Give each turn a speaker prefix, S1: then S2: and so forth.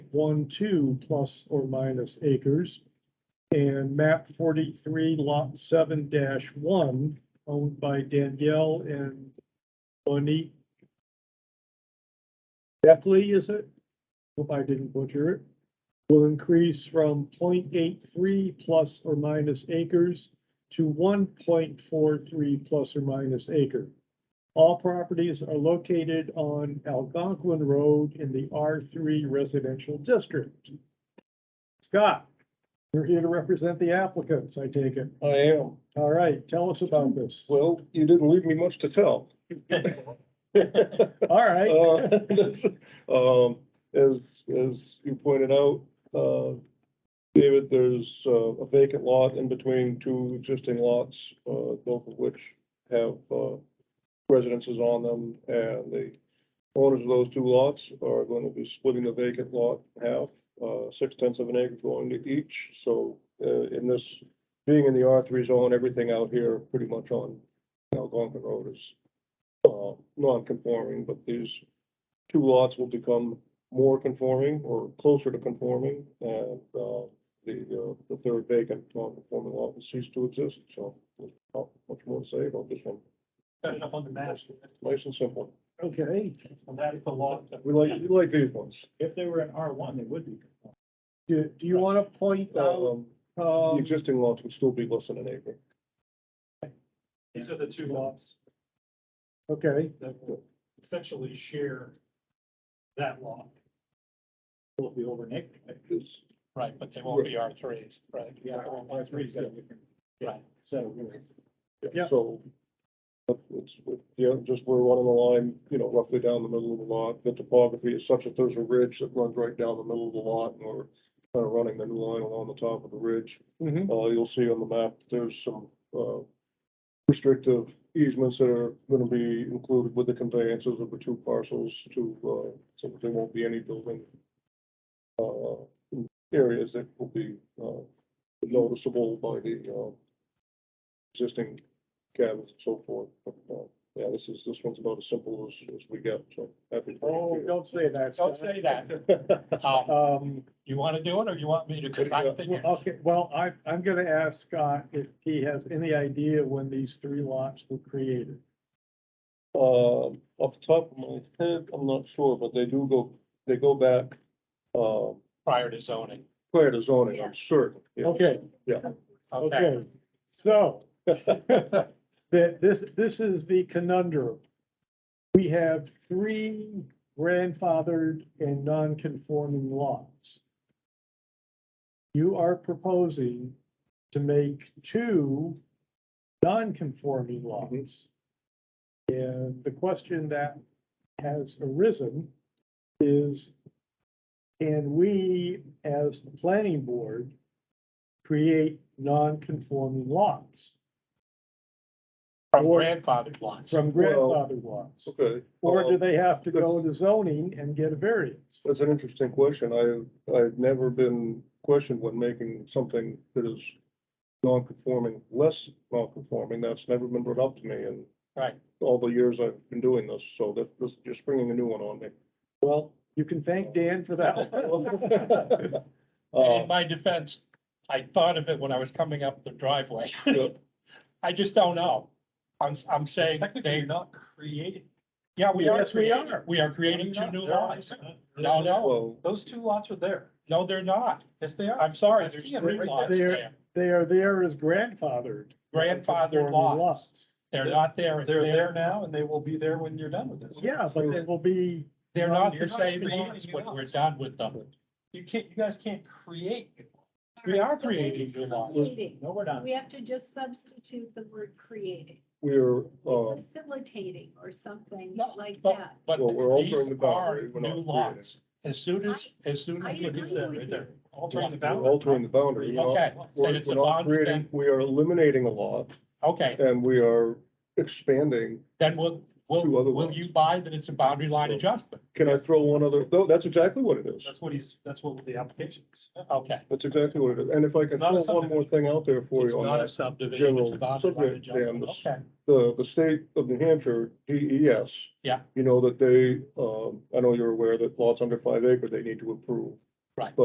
S1: one, two plus or minus acres. And map forty-three lot seven dash one owned by Danielle and Bonnie. Beckley, is it? Hope I didn't butcher it. Will increase from 0.83 plus or minus acres to one point four three plus or minus acre. All properties are located on Algonquin Road in the R three residential district. Scott, you're here to represent the applicants, I take it.
S2: I am.
S1: All right, tell us about this.
S2: Well, you didn't leave me much to tell.
S1: All right,
S2: Uh, that's- Um, as, as you pointed out, uh, David, there's uh, a vacant lot in between two existing lots, uh, both of which have, uh, residences on them, and the owners of those two lots are going to be splitting the vacant lot in half, uh, six tenths of an acre going to each, so, uh, in this, being in the R three zone, everything out here pretty much on Algonquin Road is uh, non-conforming, but these two lots will become more conforming or closer to conforming, and, uh, the, uh, the third vacant non-conforming lot will cease to exist, so there's not much more to say about this one,
S3: Got it up on the map.
S2: nice and simple.
S1: okay.
S3: So that's the law.
S2: We like, we like these ones.
S3: If they were in R one, they would be.
S1: Do, do you want to point
S3: Uh,
S1: out,
S2: Um, The
S1: um,
S2: existing lots would still be less than an acre.
S3: These are the two lots
S1: okay,
S3: that will essentially share that lot. Will be over an acre.
S2: It's-
S3: Right, but they
S2: won't
S3: be R threes, right? Yeah, R threes. Right. So.
S1: Yeah.
S2: So, but it's, yeah, just we're running the line, you know, roughly down the middle of the lot. The topography is such that there's a ridge that runs right down the middle of the lot, and we're kind of running the new line along the top of the ridge.
S1: mhm,
S2: Uh, you'll see on the map, that there's some, uh, restrictive easements that are gonna be included with the conveyances of the two parcels to, uh, so that there won't be any building, uh, areas that will be, uh, noticeable by the, uh, existing cabins and so forth. But, uh, yeah, this is, this one's about as simple as, as we get, so happy. to bring it
S1: oh,
S2: here.
S1: don't say that.
S3: Don't
S1: Scott.
S3: say that. Um,
S1: Um,
S3: You want to do it or you want me to? Cause I'm thinking,
S1: okay, well, I, I'm gonna ask Scott if he has any idea when these three lots were created.
S2: Um, off the top of my head, I'm not sure, but they do go, they go back, um,
S3: prior to zoning.
S2: prior to zoning, I'm certain. yeah.
S1: Okay,
S3: Okay.
S1: okay, so. That this, this is the conundrum. We have three grandfathered and non-conforming lots. You are proposing to make two non-conforming lots. And the question that has arisen is, can we, as the planning board, create non-conforming lots
S3: From grandfathered lots.
S1: from
S2: Well-
S1: grandfathered lots?
S2: Okay.
S1: Or do
S2: um,
S1: they have to go to zoning and get a variance?
S2: That's an interesting question. I, I've never been questioned when making something that is non-conforming, less non-conforming. That's never been brought up to me in
S3: Right.
S2: all the years I've been doing this, so that, this, you're springing a new one on me.
S1: Well, you can thank Dan for that. one.
S3: And
S2: Uh,
S1: Oh.
S3: in my defense, I thought of it when I was coming up the driveway.
S2: yeah,
S3: I just don't know. I'm, I'm saying they. Not creating. Yeah, we are.
S1: Yes, we
S3: creating-
S1: are.
S3: We are creating two new lines. No, no,
S2: well,
S4: Those two lots are there.
S3: no, they're not.
S4: Yes, they are.
S3: I'm sorry,
S4: I
S3: there's
S4: see 'em
S3: three
S4: right
S3: lots
S1: there.
S3: there.
S1: They are there as grandfathered.
S3: Grandfathered
S1: non-conforming
S3: lots. They're not there.
S4: They're there now and they will be there when you're done with this.
S1: Yeah, but it will be,
S3: They're
S4: Well,
S3: not
S4: you're
S3: the
S4: not
S3: same
S4: creating
S3: lots when we're
S4: lots.
S3: done with them.
S4: You can't, you guys can't create. new lots.
S3: We are
S5: Alright, the word
S3: creating
S5: is
S3: new laws.
S5: creating.
S3: No, we're not.
S5: We have to just substitute the word creating,
S2: we're, uh,
S5: facilitating or something
S3: No,
S5: like
S3: but-
S5: that.
S3: But
S2: Well, we're
S3: these
S2: altering the
S3: are
S2: boundary, we're not
S3: new lots. As soon as, as soon
S5: I
S3: as.
S5: agree
S3: it's there,
S5: with
S3: right there.
S5: you.
S4: Altering the
S2: we're altering
S4: boundary.
S2: the boundary. We're not-
S3: Okay, so
S2: we're-
S3: it's a
S2: we're not
S3: boundary
S2: creating- We are eliminating a lot
S3: Okay,
S2: and we are expanding
S3: then will,
S2: Two other
S3: will, will
S2: lots.
S3: you buy that it's a boundary line
S2: Well-
S3: adjustment?
S2: Can I throw one other, no, that's exactly what it is.
S4: That's what he's, that's what the application is.
S3: Okay.
S2: That's exactly what it is. And if I can
S4: not a
S2: throw one more thing out there for
S3: It's
S2: you
S3: not
S2: on
S3: a
S2: that,
S3: subdivision, it's
S2: general
S3: a boundary line
S2: subject, Dan,
S3: adjustment.
S2: this-
S3: Okay,
S2: the, the state of New Hampshire, E DES.
S3: Yeah.
S2: You know, that they, um, I know you're aware that lots under five acre, they need to approve.